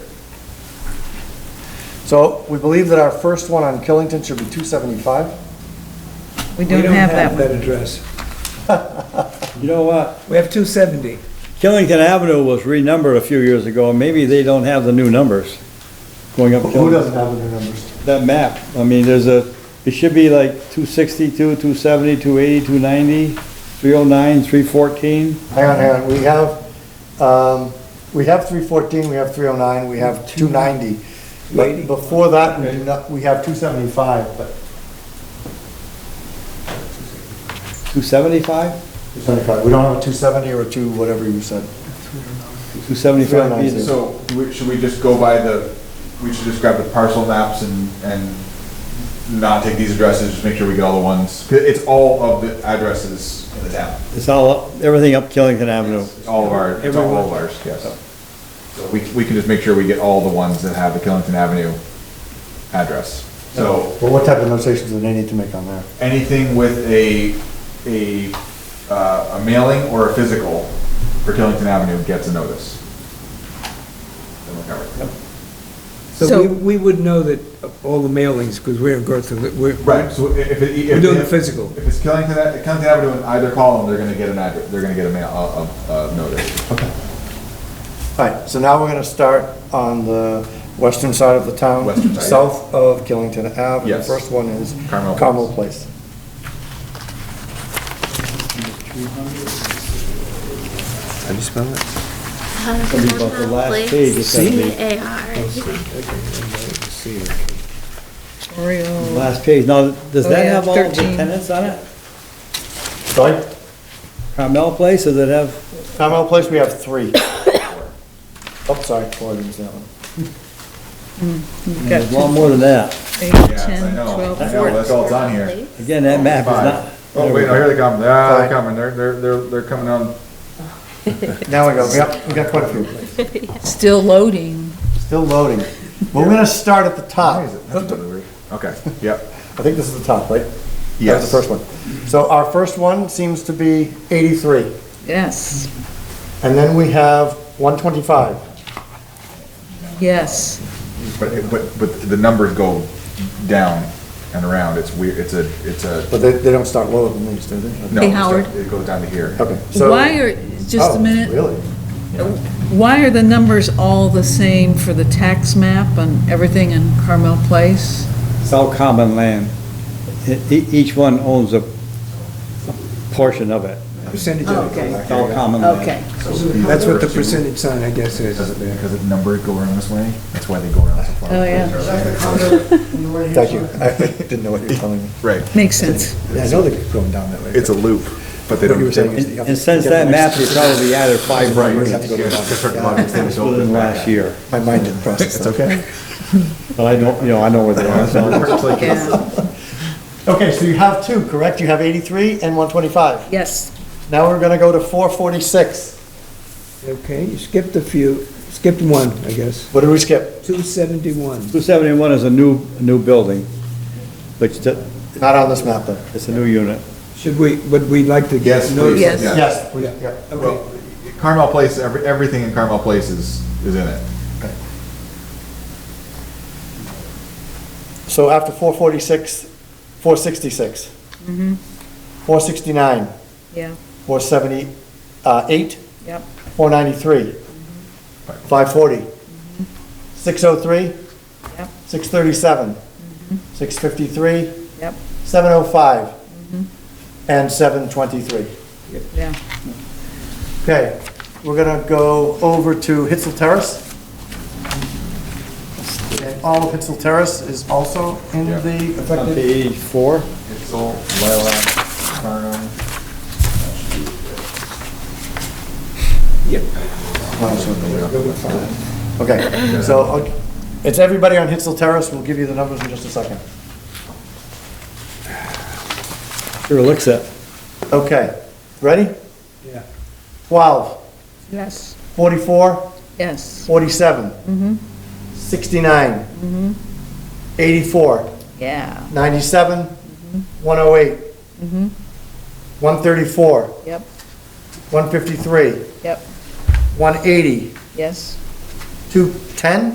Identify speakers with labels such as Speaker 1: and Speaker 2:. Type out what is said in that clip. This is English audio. Speaker 1: So we believe that our first one on Killington should be 275.
Speaker 2: We don't have that one.
Speaker 3: address. You know what?
Speaker 4: We have 270.
Speaker 3: Killington Avenue was renumbered a few years ago, maybe they don't have the new numbers going up.
Speaker 1: Who
Speaker 3: Killington.
Speaker 1: doesn't have the new numbers?
Speaker 3: That map, I mean, there's a, it should be like 262, 270, 280, 290, 309, 314.
Speaker 1: Hang on, hang on, we have, um, we have 314, we have 309, we have 290. But before that, we do not, we have 275, but
Speaker 3: 275?
Speaker 1: 275, we don't have a 270 or a 2, whatever you said.
Speaker 3: 275
Speaker 1: 309.
Speaker 3: either.
Speaker 5: So, we- should we just go by the, we should just grab the parcel maps and, and not take these addresses, just make sure we get all the ones? 'Cause It's all of the addresses in the town.
Speaker 3: It's all, up- everything up Killington Avenue.
Speaker 5: It's All of our, it's all of ours, yes. So we, we can just make sure we get all the ones that have the Killington Avenue address. So
Speaker 1: Well, what type of notations do they need to make on there?
Speaker 5: anything with a, a, uh, a mailing or a physical for Killington Avenue gets a notice. Then we're covered.
Speaker 4: So
Speaker 2: So-
Speaker 4: we, we would know that all the mailings, because we're in Groveland, we're.
Speaker 5: Right, so i- if it. if-
Speaker 4: We're doing the
Speaker 5: if-
Speaker 4: physical.
Speaker 5: If it's Killington, Ave- Killington Avenue in either column, they're gonna get an address, they're gonna get a mail, a, a, a notice.
Speaker 1: All right, so now we're gonna start on the western side of the town.
Speaker 5: Western side, yeah.
Speaker 1: South of Killington Ave. The
Speaker 5: Yes.
Speaker 1: First one is
Speaker 5: Carmel Place.
Speaker 1: Carmel Place.
Speaker 6: How do you spell it?
Speaker 3: Something about the last page, it's gotta be,
Speaker 2: Oriole.
Speaker 3: last page. Now, does
Speaker 2: Oh,
Speaker 3: that
Speaker 2: yeah,
Speaker 3: have all the
Speaker 2: 13.
Speaker 3: tenants on it?
Speaker 1: Sorry?
Speaker 3: Carmel Place, does it have,
Speaker 1: Carmel Place, we have three. Oh, sorry, four, I didn't say that one.
Speaker 2: We've got
Speaker 3: there's a lot more than that.
Speaker 2: eight,
Speaker 5: Yes, I
Speaker 2: 10,
Speaker 5: know.
Speaker 2: 12,
Speaker 5: I know, that's all it's on here.
Speaker 3: Again, that map is not.
Speaker 5: Oh, wait, no, here they come, ah,
Speaker 1: Sorry.
Speaker 5: they're coming, they're, they're, they're, they're coming on,
Speaker 1: Now we go, we got, we got quite a few.
Speaker 2: Still loading.
Speaker 1: Still loading. We're gonna start at the top.
Speaker 5: why is it? That's a bit weird. Okay, yep.
Speaker 1: I think this is the top, right?
Speaker 5: Yes.
Speaker 1: That was the first one. So our first one seems to be 83,
Speaker 2: Yes,
Speaker 1: and then we have 125.
Speaker 2: yes.
Speaker 5: But, it- but, but the numbers go down and around, it's weird, it's a, it's a.
Speaker 1: But they, they don't start lower than these, do they?
Speaker 5: no,
Speaker 2: Hey,
Speaker 5: it's not-
Speaker 2: Howard.
Speaker 5: It goes down to here.
Speaker 1: Okay, so.
Speaker 2: Why are, just
Speaker 1: Oh,
Speaker 2: a minute,
Speaker 1: Really?
Speaker 2: why are the numbers all the same for the tax map and everything in Carmel Place?
Speaker 3: It's all common land. E- e- Each one owns a a portion of it.
Speaker 4: Percentage
Speaker 2: Oh,
Speaker 4: on
Speaker 2: okay.
Speaker 4: it.
Speaker 3: It's all common land.
Speaker 2: Okay,
Speaker 4: That's what the percentage sign, I guess, is.
Speaker 5: Because, it- because the numbers go around this way, that's why they go around so far.
Speaker 2: Oh, yeah.
Speaker 1: Thank you. I didn't know what you were telling me.
Speaker 5: Right,
Speaker 2: makes sense.
Speaker 1: Yeah, I know they're going down that way.
Speaker 5: it's a loop, but they
Speaker 1: What you were
Speaker 5: don't.
Speaker 1: saying is
Speaker 3: And and since that map, they probably added five
Speaker 5: Right.
Speaker 3: numbers within the last year.
Speaker 1: My mind didn't process that.
Speaker 5: okay.
Speaker 3: But I don't, you know, I know where they are, so.
Speaker 2: Yeah,
Speaker 1: Okay, so you have two, correct? You have 83 and 125.
Speaker 2: yes.
Speaker 1: Now we're gonna go to 446.
Speaker 4: Okay, you skipped a few, skipped one, I guess.
Speaker 1: What did we skip?
Speaker 4: 271.
Speaker 3: 271 is a new, new building, but it's a-
Speaker 1: Not on this map, though.
Speaker 3: it's a new unit.
Speaker 4: Should we, would we like to?
Speaker 5: Yes,
Speaker 4: notice-
Speaker 5: please.
Speaker 2: Yes.
Speaker 5: Yeah.
Speaker 1: Yes, we- yeah.
Speaker 5: Well, Carmel Place, every, everything in Carmel Place is, is in it.
Speaker 1: So after 446, 466.
Speaker 2: Mm-hmm.
Speaker 1: 469,
Speaker 2: Yeah,
Speaker 1: 478,
Speaker 2: yep.
Speaker 1: 493, 540, 603,
Speaker 2: Yep.
Speaker 1: 637, 653,
Speaker 2: Yep.
Speaker 1: 705, and 723.
Speaker 2: Yeah.
Speaker 1: Okay, we're gonna go over to Hitzel Terrace. And all of Hitzel Terrace is also in
Speaker 5: Yeah.
Speaker 1: the
Speaker 3: On
Speaker 1: affected.
Speaker 3: page four,
Speaker 5: It's all lilac, carnum.
Speaker 1: Okay, so, okay, it's everybody on Hitzel Terrace, we'll give you the numbers in just a second.
Speaker 3: sure looks at,
Speaker 1: Okay, ready?
Speaker 4: Yeah.
Speaker 1: 12,
Speaker 2: Yes.
Speaker 1: 44,
Speaker 2: Yes.
Speaker 1: 47, 69, 84,
Speaker 2: Yeah,
Speaker 1: 97, 108, 134,
Speaker 2: yep,
Speaker 1: 153,
Speaker 2: yep,
Speaker 1: 180,
Speaker 2: yes.
Speaker 1: 210,